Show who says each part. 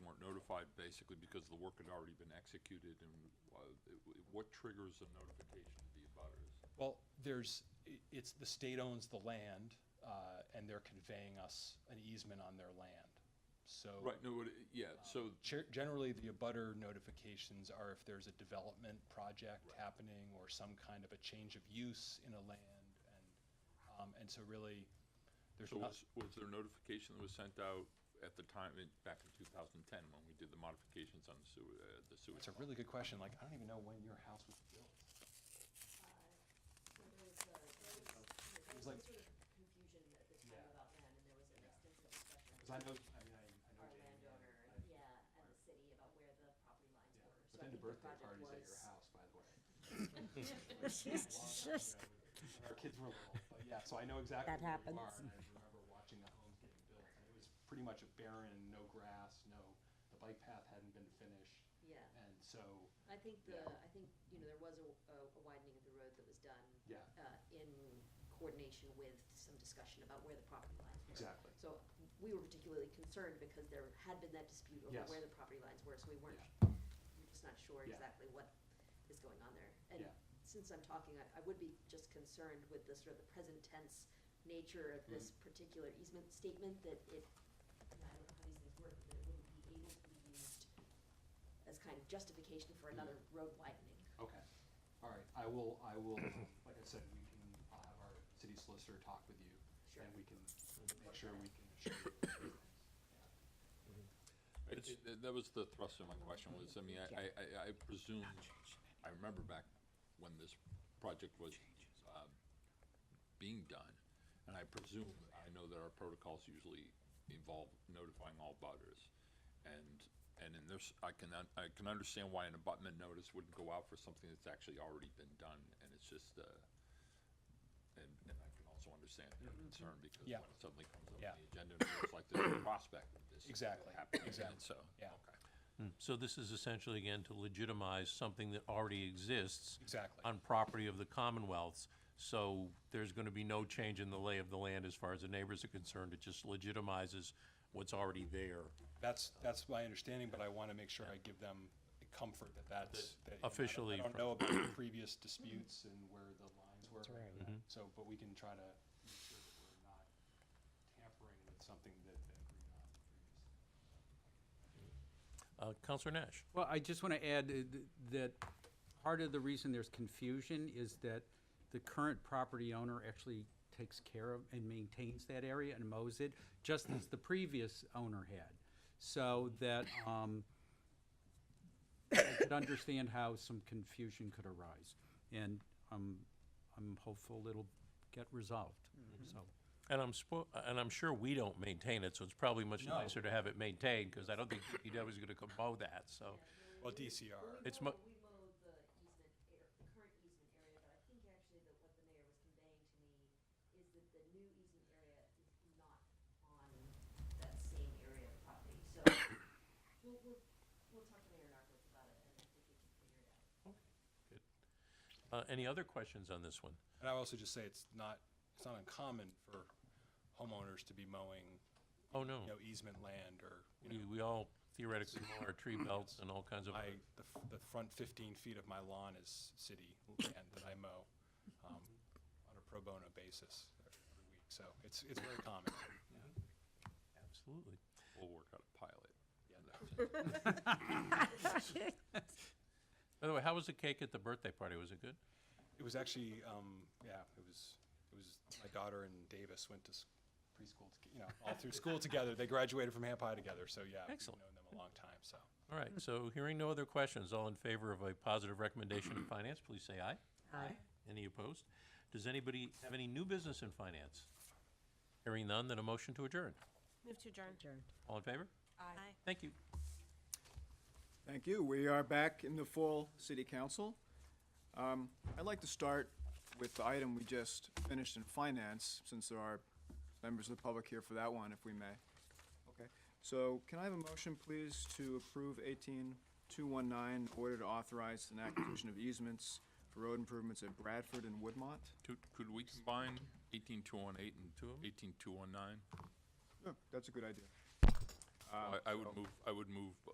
Speaker 1: basically because the work had already been executed and uh, it- what triggers a notification to the abutters?
Speaker 2: Well, there's, i- it's, the state owns the land, uh, and they're conveying us an easement on their land. So um,
Speaker 1: Right, no, what it- yeah, so,
Speaker 2: ger- generally, the abutter notifications are if there's a development project happening or some kind of a change of use in a land. And, um, and so really, there's
Speaker 1: so
Speaker 2: not,
Speaker 1: was, was there notification that was sent out at the time, in- back in two thousand and ten, when we did the modifications on the sewer, uh, the sewer?
Speaker 2: it's a really good question. Like, I don't even know when your house was built.
Speaker 3: uh, There was
Speaker 2: was like-
Speaker 3: some sort of confusion at the time
Speaker 2: Yeah.
Speaker 3: about land, and there was an extensive discussion
Speaker 2: Cause I know, I mean, I, I know Jamie.
Speaker 3: our
Speaker 2: and
Speaker 3: landowner,
Speaker 2: I-
Speaker 3: yeah, and the city about where the property lines
Speaker 2: yeah.
Speaker 3: were.
Speaker 2: But
Speaker 3: So I
Speaker 2: then the
Speaker 3: think
Speaker 2: birthday
Speaker 3: project
Speaker 2: parties at your house, by the way.
Speaker 3: was-
Speaker 2: When Our kids were little, but yeah, so I know exactly
Speaker 4: That
Speaker 2: where you are,
Speaker 4: happens.
Speaker 2: and I remember watching the homes getting built, and it was pretty much a barren, no grass, no, the bike path hadn't been finished,
Speaker 3: Yeah,
Speaker 2: and so,
Speaker 3: I think the,
Speaker 2: Yeah.
Speaker 3: I think, you know, there was a, a a widening of the road that was done
Speaker 2: yeah,
Speaker 3: uh, in coordination with some discussion about where the property lines were.
Speaker 2: exactly.
Speaker 3: So we were particularly concerned because there had been that dispute over
Speaker 2: Yes.
Speaker 3: where the property lines were, so we weren't, we're just not sure
Speaker 2: Yeah.
Speaker 3: exactly what is going on there. And
Speaker 2: Yeah.
Speaker 3: since I'm talking, I, I would be just concerned with the sort of the present tense nature of this
Speaker 2: Mm-hmm.
Speaker 3: particular easement statement that it, and I don't know how these things work, but it wouldn't be able to be used as kind of justification for
Speaker 2: Mm-hmm.
Speaker 3: another road widening.
Speaker 2: Okay, all right, I will, I will, like I said, we can, I'll have our city solicitor talk with you,
Speaker 3: Sure.
Speaker 2: and we can make sure we can. show you those things.
Speaker 1: It- it- That that was the thrust of my question, was, I mean, I- I, I, I presume, I remember back when this project was, um, being done, and I presume, I know that our protocols usually involve notifying all butters. And, and in this, I can, un- I can understand why an abutment notice wouldn't go out for something that's actually already been done, and it's just, uh, and, and I can also understand your concern, because when
Speaker 2: Mm-hmm. Yeah.
Speaker 1: it suddenly comes up
Speaker 2: Yeah.
Speaker 1: on the agenda, it looks like there's a prospect of this
Speaker 2: Exactly,
Speaker 1: happening,
Speaker 2: exactly.
Speaker 1: and so.
Speaker 2: Yeah,
Speaker 1: Okay.
Speaker 5: So this is essentially, again, to legitimize something that already exists
Speaker 2: exactly.
Speaker 5: on property of the Commonwealths. So there's going to be no change in the lay of the land as far as the neighbors are concerned. It just legitimizes what's already there.
Speaker 2: That's, that's my understanding, but I want to make sure I give them comfort that that's. that, you know, I don't-
Speaker 5: Officially
Speaker 2: I don't
Speaker 5: from-
Speaker 2: know about the previous disputes and where the lines were. So, but we can try to make sure that we're not tampering with something that they agreed on previously.
Speaker 5: Uh, Counselor Nash?
Speaker 6: Well, I just want to add uh, th- that part of the reason there's confusion is that the current property owner actually takes care of and maintains that area and mows it, just as the previous owner had. So that, um, I could understand how some confusion could arise. And I'm, I'm hopeful it'll get resolved, so.
Speaker 5: And I'm spo, and I'm sure we don't maintain it, so it's probably much
Speaker 6: No.
Speaker 5: nicer to have it maintained, because I don't think DPW is going to compose that, so.
Speaker 2: Well, DCR.
Speaker 5: It's mo-
Speaker 3: We mowed the easement, ar- the current easement area, but I think actually that what the mayor was conveying to me is that the new easement area is not on that same area of property, so we'll, we'll, we'll talk to Mayor Narcos about it, and I think we can figure it out.
Speaker 5: Uh, Any other questions on this one?
Speaker 2: And I also just say it's not, it's not uncommon for homeowners to be mowing,
Speaker 5: Oh, no.
Speaker 2: you know, easement land or, you
Speaker 5: We
Speaker 2: know,
Speaker 5: we all theoretically mow our tree belts and all kinds of.
Speaker 2: I, the, f- the front fifteen feet of my lawn is city land that I mow, um, on a pro bono basis every week, so it's, it's very common.
Speaker 5: Absolutely.
Speaker 1: We'll work out a pilot.
Speaker 2: Yeah.
Speaker 5: By the way, how was the cake at the birthday party? Was it good?
Speaker 2: It was actually, um, yeah, it was, it was, my daughter and Davis went to s- preschool, to- you know, all through school together. They graduated from Hampi together, so yeah.
Speaker 5: Excellent.
Speaker 2: We've known them a long time, so.
Speaker 5: All right, so hearing no other questions, all in favor of a positive recommendation in finance, please say aye.
Speaker 4: Aye.
Speaker 5: Any opposed? Does anybody have any new business in finance? Hearing none, then a motion to adjourn.
Speaker 7: Move to adjourn.
Speaker 4: Adjourned.
Speaker 5: All in favor?
Speaker 7: Aye.
Speaker 5: Thank you.
Speaker 8: Thank you. We are back in the full city council. Um, I'd like to start with the item we just finished in finance, since there are members of the public here for that one, if we may. Okay, so can I have a motion, please, to approve eighteen two one nine, order to authorize an acquisition of easements for road improvements at Bradford and Woodmont?
Speaker 1: Could, could we combine eighteen two one eight and
Speaker 5: Two of 'em?
Speaker 1: eighteen two one nine?
Speaker 8: Yeah, that's a good idea.
Speaker 1: Uh, I, I would move, I would move